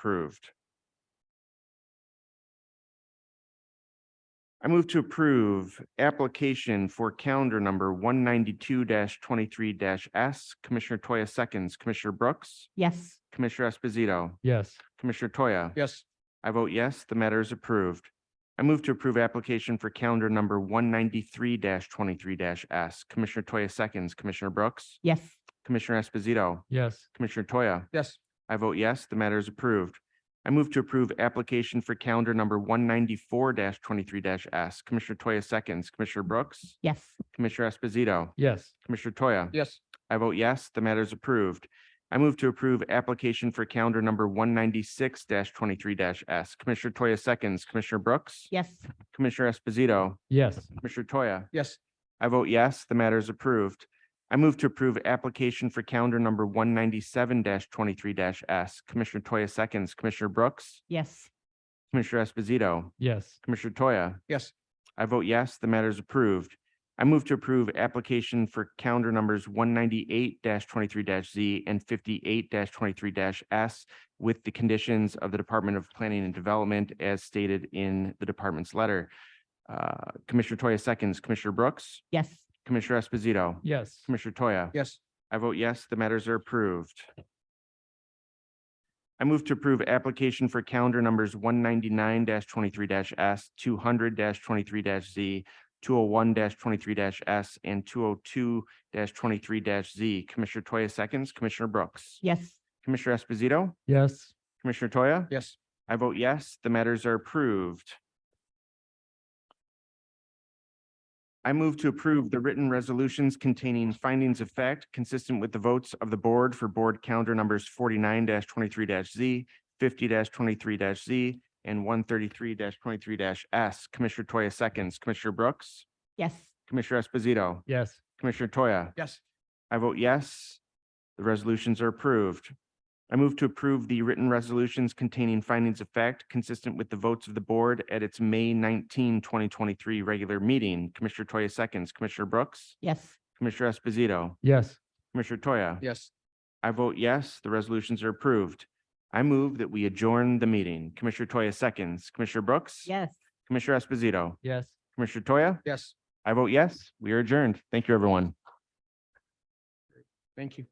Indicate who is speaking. Speaker 1: approved. I move to approve application for calendar number one ninety-two twenty-three dash S. Commissioner Toya seconds, Commissioner Brooks,
Speaker 2: Yes.
Speaker 1: Commissioner Esposito,
Speaker 3: Yes.
Speaker 1: Commissioner Toya.
Speaker 3: Yes.
Speaker 1: I vote yes, the matter is approved. I move to approve application for calendar number one ninety-three twenty-three S. Commissioner Toya seconds, Commissioner Brooks,
Speaker 2: Yes.
Speaker 1: Commissioner Esposito,
Speaker 3: Yes.
Speaker 1: Commissioner Toya.
Speaker 3: Yes.
Speaker 1: I vote yes, the matter is approved. I move to approve application for calendar number one ninety-four twenty-three S. Commissioner Toya seconds, Commissioner Brooks,
Speaker 2: Yes.
Speaker 1: Commissioner Esposito,
Speaker 3: Yes.
Speaker 1: Commissioner Toya.
Speaker 3: Yes.
Speaker 1: I vote yes, the matter is approved. I move to approve application for calendar number one ninety-six twenty-three S. Commissioner Toya seconds, Commissioner Brooks,
Speaker 2: Yes.
Speaker 1: Commissioner Esposito,
Speaker 3: Yes.
Speaker 1: Commissioner Toya.
Speaker 3: Yes.
Speaker 1: I vote yes, the matter is approved. I move to approve application for calendar number one ninety-seven twenty-three S. Commissioner Toya seconds, Commissioner Brooks,
Speaker 2: Yes.
Speaker 1: Commissioner Esposito,
Speaker 3: Yes.
Speaker 1: Commissioner Toya.
Speaker 3: Yes.
Speaker 1: I vote yes, the matter is approved. I move to approve application for calendar numbers one ninety-eight twenty-three Z and fifty-eight twenty-three S with the conditions of the Department of Planning and Development as stated in the department's letter. Uh, Commissioner Toya seconds, Commissioner Brooks,
Speaker 2: Yes.
Speaker 1: Commissioner Esposito,
Speaker 3: Yes.
Speaker 1: Commissioner Toya.
Speaker 3: Yes.
Speaker 1: I vote yes, the matters are approved. I move to approve application for calendar numbers one ninety-nine twenty-three S, two hundred twenty-three Z, two oh one twenty-three S, and two oh two twenty-three Z. Commissioner Toya seconds, Commissioner Brooks.
Speaker 2: Yes.
Speaker 1: Commissioner Esposito,
Speaker 3: Yes.
Speaker 1: Commissioner Toya.
Speaker 3: Yes.
Speaker 1: I vote yes, the matters are approved. I move to approve the written resolutions containing findings of fact consistent with the votes of the board for board calendar numbers forty-nine twenty-three Z, fifty twenty-three Z, and one thirty-three twenty-three S. Commissioner Toya seconds, Commissioner Brooks,
Speaker 2: Yes.
Speaker 1: Commissioner Esposito,
Speaker 3: Yes.
Speaker 1: Commissioner Toya.
Speaker 3: Yes.
Speaker 1: I vote yes. The resolutions are approved. I move to approve the written resolutions containing findings of fact consistent with the votes of the board at its May 19, 2023 regular meeting. Commissioner Toya seconds, Commissioner Brooks,
Speaker 2: Yes.
Speaker 1: Commissioner Esposito,
Speaker 3: Yes.
Speaker 1: Commissioner Toya.
Speaker 3: Yes.
Speaker 1: I vote yes, the resolutions are approved. I move that we adjourn the meeting. Commissioner Toya seconds, Commissioner Brooks.
Speaker 2: Yes.
Speaker 1: Commissioner Esposito,
Speaker 3: Yes.
Speaker 1: Commissioner Toya.
Speaker 3: Yes.
Speaker 1: I vote yes, we are adjourned. Thank you, everyone.
Speaker 3: Thank you.